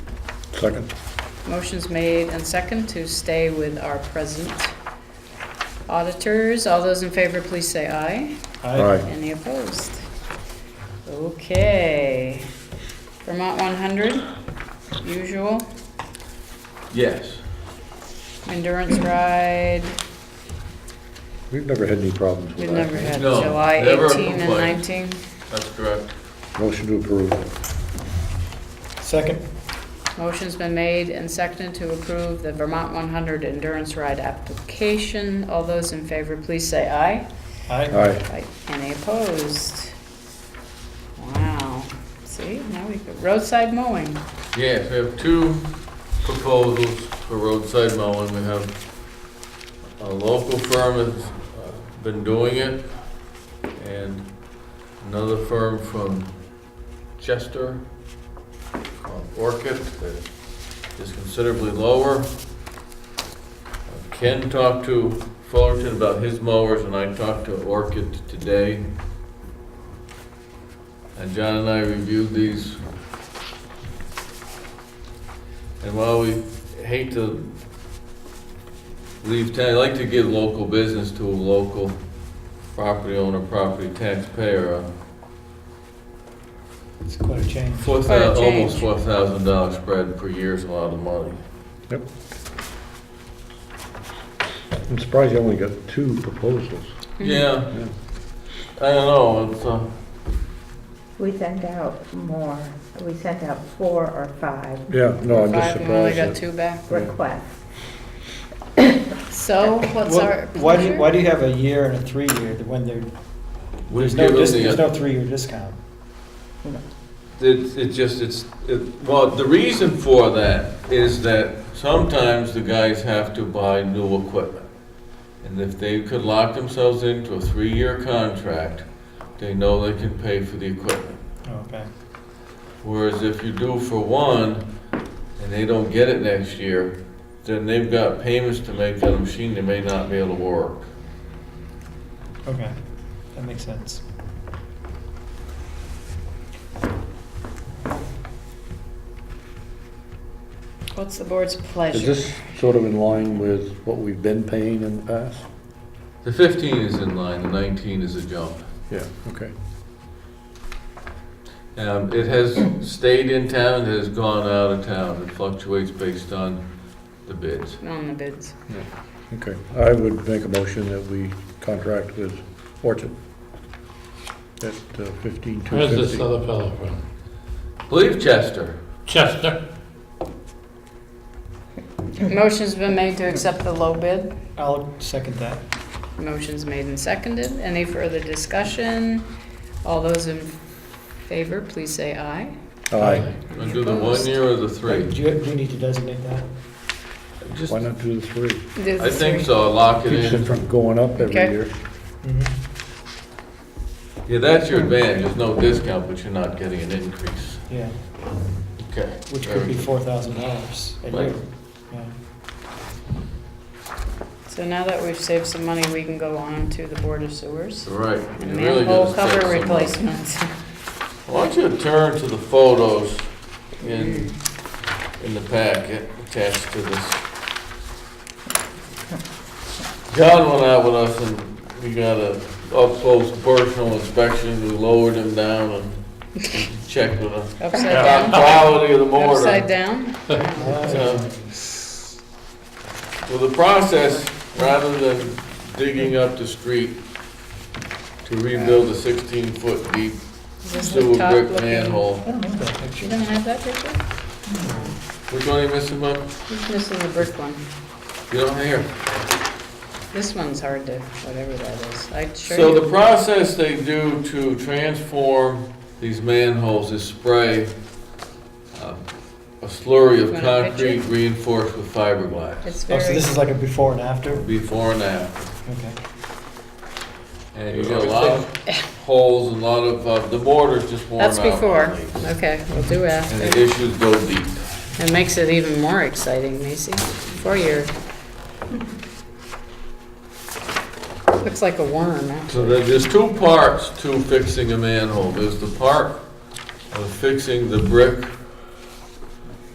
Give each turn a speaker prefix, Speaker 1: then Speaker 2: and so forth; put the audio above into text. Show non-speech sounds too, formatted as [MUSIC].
Speaker 1: Second?
Speaker 2: Motion's made and second to stay with our present auditors. All those in favor, please say aye.
Speaker 1: Aye.
Speaker 2: Any opposed? Okay. Vermont 100, usual.
Speaker 3: Yes.
Speaker 2: Endurance ride,
Speaker 1: We've never had any problems with
Speaker 2: we've
Speaker 1: that.
Speaker 2: never had
Speaker 3: No,
Speaker 2: July
Speaker 3: never
Speaker 2: 18 and
Speaker 3: complained.
Speaker 2: 19.
Speaker 3: That's correct.
Speaker 1: Motion to approve.
Speaker 4: Second?
Speaker 2: Motion's been made and seconded to approve the Vermont 100 endurance ride application. All those in favor, please say aye.
Speaker 4: Aye.
Speaker 1: Aye.
Speaker 2: Right, Any opposed? Wow, see, now we got roadside mowing.
Speaker 3: Yes, we have two proposals for roadside mowing. We have a local firm that's uh, been doing it, and another firm from Chester called Orchid that is considerably lower. Ken talked to Fullerton about his mowers, and I talked to Orchid today. And John and I reviewed these and while we hate to leave town, I like to give local business to a local property owner, property taxpayer,
Speaker 4: It's quite a change.
Speaker 3: four
Speaker 2: Quite a
Speaker 3: thousand, almost
Speaker 2: change.
Speaker 3: four thousand dollar spread per year is a lot of money.
Speaker 1: Yep. I'm surprised you only got two proposals.
Speaker 2: Mm-hmm.
Speaker 3: Yeah, I don't know, it's, uh,
Speaker 5: We sent out more, we sent out four or five
Speaker 1: Yeah, no, I'm just
Speaker 2: Five, we only
Speaker 1: surprised.
Speaker 2: got
Speaker 1: that-
Speaker 2: two back.
Speaker 5: requests.
Speaker 2: So what's
Speaker 4: Well,
Speaker 2: our
Speaker 4: Why do, you- why
Speaker 2: pleasure?
Speaker 4: do you have a year and a three-year when there,
Speaker 3: we
Speaker 4: there's no,
Speaker 3: give
Speaker 4: dis-
Speaker 3: them
Speaker 4: there's
Speaker 3: the, uh,
Speaker 4: no three-year discount?
Speaker 3: it's, it just, it's, it, well, the reason for that is that sometimes the guys have to buy new equipment. And if they could lock themselves into a three-year contract, they know they can pay for the equipment.
Speaker 4: Oh, Okay.
Speaker 3: Whereas if you do for one, and they don't get it next year, then they've got payments to make on a machine they may not be able to work.
Speaker 4: Okay, that makes sense.
Speaker 2: What's the board's
Speaker 1: Is
Speaker 2: pleasure?
Speaker 1: this sort of in line with what we've been paying in the past?
Speaker 3: The fifteen is in line, the nineteen is a jump.
Speaker 1: Yeah, okay.
Speaker 3: Um, it has stayed in town, it has gone out of town, it fluctuates based on the bids.
Speaker 2: On the bids.
Speaker 1: Okay. I would make a motion that we contract with Orchard at uh, fifteen two
Speaker 6: Where's this
Speaker 1: fifty.
Speaker 6: other fellow from?
Speaker 3: Believe Chester,
Speaker 6: Chester?
Speaker 2: Motion's been made to accept the low bid.
Speaker 4: I'll second that.
Speaker 2: Motion's made and seconded. Any further discussion? All those in favor, please say aye.
Speaker 1: Aye.
Speaker 3: wanna do the one year or the three?
Speaker 4: Do you, do you need to designate that?
Speaker 3: Just-
Speaker 1: Why not do the three?
Speaker 2: Do the
Speaker 3: I think
Speaker 2: three.
Speaker 3: so, lock it
Speaker 1: Keeps it
Speaker 3: in.
Speaker 1: from going up every
Speaker 2: Okay.
Speaker 1: year.
Speaker 4: Mm-hmm.
Speaker 3: Yeah, that's your advantage, there's no discount, but you're not getting an increase.
Speaker 4: Yeah,
Speaker 3: Okay.
Speaker 4: which could be four thousand dollars a year.
Speaker 3: Right.
Speaker 4: Yeah.
Speaker 2: So now that we've saved some money, we can go on to the Board of Sewers.
Speaker 3: Right. you really
Speaker 2: Manhole
Speaker 3: gotta set
Speaker 2: cover
Speaker 3: some up.
Speaker 2: replacements. [LAUGHS]
Speaker 3: I want you to turn to the photos in, in the packet attached to this. John went out with us and we got a up-close personal inspection, we lowered him down and checked with him.
Speaker 2: Upside
Speaker 3: About
Speaker 2: down,
Speaker 3: quality of the mortar.
Speaker 2: upside down.
Speaker 3: Um, Well, the process, rather than digging up the street to rebuild a sixteen-foot deep
Speaker 2: Is this the
Speaker 3: sewer
Speaker 2: top
Speaker 3: brick
Speaker 2: looking-
Speaker 3: manhole,
Speaker 4: I don't remember that
Speaker 2: You
Speaker 4: picture.
Speaker 2: don't have that picture?
Speaker 3: which one are you missing, Mike?
Speaker 2: He's missing the brick one.
Speaker 3: You don't hear.
Speaker 2: This one's hard to, whatever that is. I sure.
Speaker 3: So the
Speaker 2: you-
Speaker 3: process they do to transform these manholes is spray um, a slurry
Speaker 2: Want
Speaker 3: of
Speaker 2: a picture?
Speaker 3: concrete reinforced with fiberglass,
Speaker 2: It's
Speaker 4: Oh, so
Speaker 2: very,
Speaker 4: this is like a before and after?
Speaker 3: before and after.
Speaker 4: Okay.
Speaker 3: And you got a lot of holes and a lot of, uh, the mortar's just worn out.
Speaker 2: that's before.
Speaker 3: on these.
Speaker 2: Okay, we'll do
Speaker 3: And
Speaker 2: after.
Speaker 3: the issues go deep.
Speaker 2: It makes it even more exciting, Macy, for your. Looks like a worm, actually.
Speaker 3: So there- there's two parts to fixing a manhole. There's the part of fixing the brick